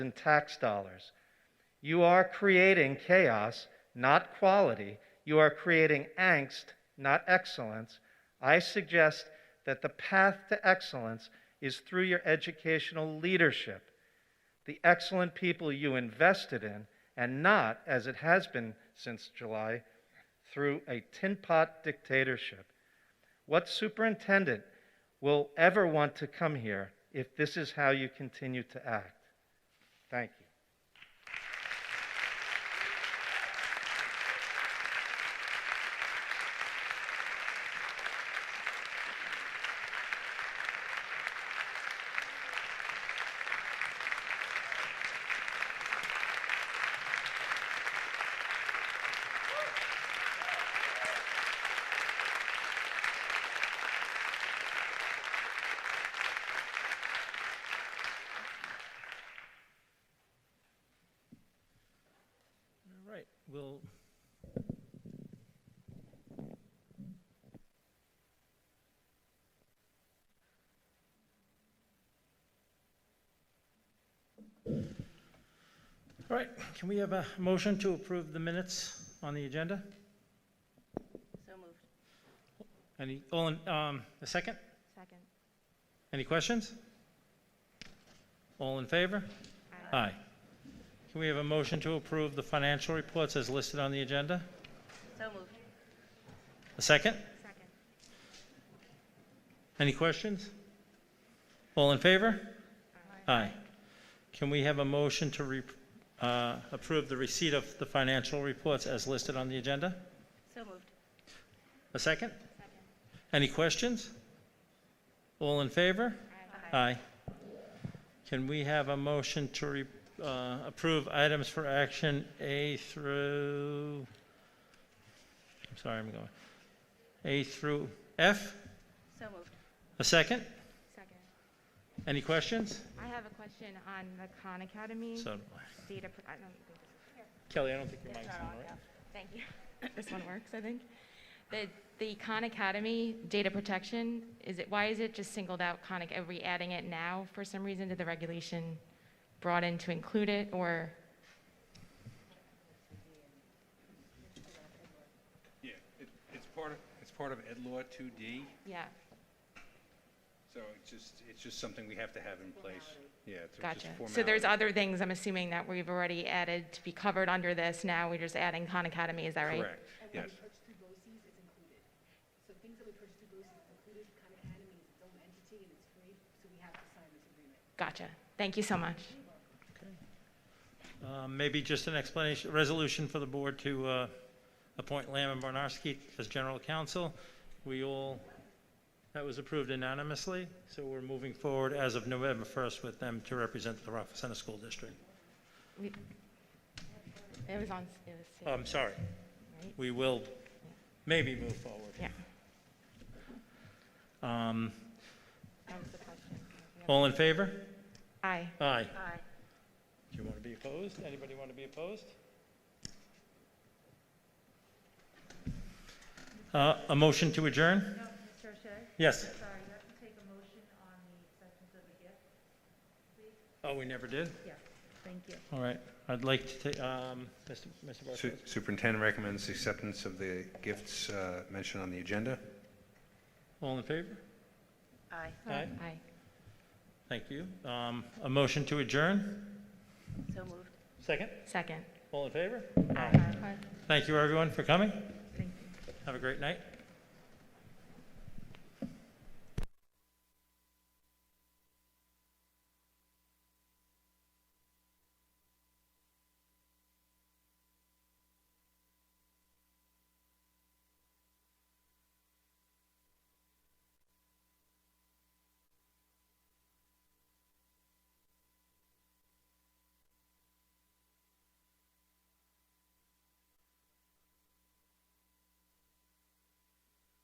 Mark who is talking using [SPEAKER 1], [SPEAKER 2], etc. [SPEAKER 1] and tax dollars. You are creating chaos, not quality. You are creating angst, not excellence. I suggest that the path to excellence is through your educational leadership, the excellent people you invested in, and not, as it has been since July, through a tin pot dictatorship. What superintendent will ever want to come here if this is how you continue to act? Thank you.
[SPEAKER 2] All right, we'll. All right, can we have a motion to approve the minutes on the agenda?
[SPEAKER 3] So moved.
[SPEAKER 2] Any, all in, um, a second?
[SPEAKER 3] Second.
[SPEAKER 2] Any questions? All in favor?
[SPEAKER 3] Aye.
[SPEAKER 2] Aye. Can we have a motion to approve the financial reports as listed on the agenda?
[SPEAKER 3] So moved.
[SPEAKER 2] A second?
[SPEAKER 3] Second.
[SPEAKER 2] Any questions? All in favor? Aye. Can we have a motion to re- uh, approve the receipt of the financial reports as listed on the agenda?
[SPEAKER 3] So moved.
[SPEAKER 2] A second?
[SPEAKER 3] Second.
[SPEAKER 2] Any questions? All in favor? Aye. Can we have a motion to re- uh, approve items for action A through, I'm sorry, I'm going, A through F?
[SPEAKER 3] So moved.
[SPEAKER 2] A second?
[SPEAKER 4] Second.
[SPEAKER 2] Any questions?
[SPEAKER 4] I have a question on the Khan Academy
[SPEAKER 2] So,
[SPEAKER 4] data, pr- I don't think,
[SPEAKER 2] Kelly, I don't think your mic's on, right?
[SPEAKER 4] thank you. This one works, I think. The, the Khan Academy data protection, is it, why is it just singled out Khan, Ac- are we adding it now for some reason? Did the regulation brought in to include it, or?
[SPEAKER 5] Yeah, it, it's part of, it's part of Ed Law 2D,
[SPEAKER 4] Yeah,
[SPEAKER 5] so it's just, it's just something we have to have in place. Yeah, it's just
[SPEAKER 4] gotcha.
[SPEAKER 5] formality.
[SPEAKER 4] So there's other things, I'm assuming, that we've already added to be covered under this, now we're just adding Khan Academy, is that right?
[SPEAKER 5] Correct, yes.
[SPEAKER 6] purchase through BOCES is included. So things that we purchase through BOCES is included, Khan Academy is its own entity and it's free, so we have to sign this agreement.
[SPEAKER 4] Gotcha. Thank you so much.
[SPEAKER 2] Uh, Maybe just an explanation, resolution for the board to uh, appoint Lamb and Barnarski as general counsel. We all, that was approved unanimously, so we're moving forward as of November 1st with them to represent the Rockville Center School District.
[SPEAKER 4] We- It was on, it was.
[SPEAKER 5] Uh,
[SPEAKER 2] Oh, I'm sorry.
[SPEAKER 4] Right.
[SPEAKER 2] We will maybe move forward.
[SPEAKER 4] Yeah.
[SPEAKER 2] Um,
[SPEAKER 4] That was the question.
[SPEAKER 2] All in favor?
[SPEAKER 4] Aye.
[SPEAKER 2] Aye.
[SPEAKER 3] Aye.
[SPEAKER 2] Do you want to be opposed? Anybody want to be opposed? Uh, A motion to adjourn?
[SPEAKER 7] No, Mr. O'Shea,
[SPEAKER 2] Yes.
[SPEAKER 7] sorry, you have to take a motion on the acceptance of the gift.
[SPEAKER 2] Oh, we never did?
[SPEAKER 7] Yeah, thank you.
[SPEAKER 2] All right. I'd like to take, um, Mr. Mr.
[SPEAKER 5] Su-
[SPEAKER 2] Barfield.
[SPEAKER 5] Superintendent recommends acceptance of the gifts uh, mentioned on the agenda.
[SPEAKER 2] All in favor?
[SPEAKER 3] Aye.
[SPEAKER 2] Aye.
[SPEAKER 4] Aye.
[SPEAKER 2] Thank you. Um, A motion to adjourn?
[SPEAKER 3] So moved.
[SPEAKER 2] Second?
[SPEAKER 4] Second.
[SPEAKER 2] All in favor?
[SPEAKER 4] Aye.
[SPEAKER 2] Thank you, everyone, for coming.
[SPEAKER 7] Thank you.
[SPEAKER 2] Have a great night.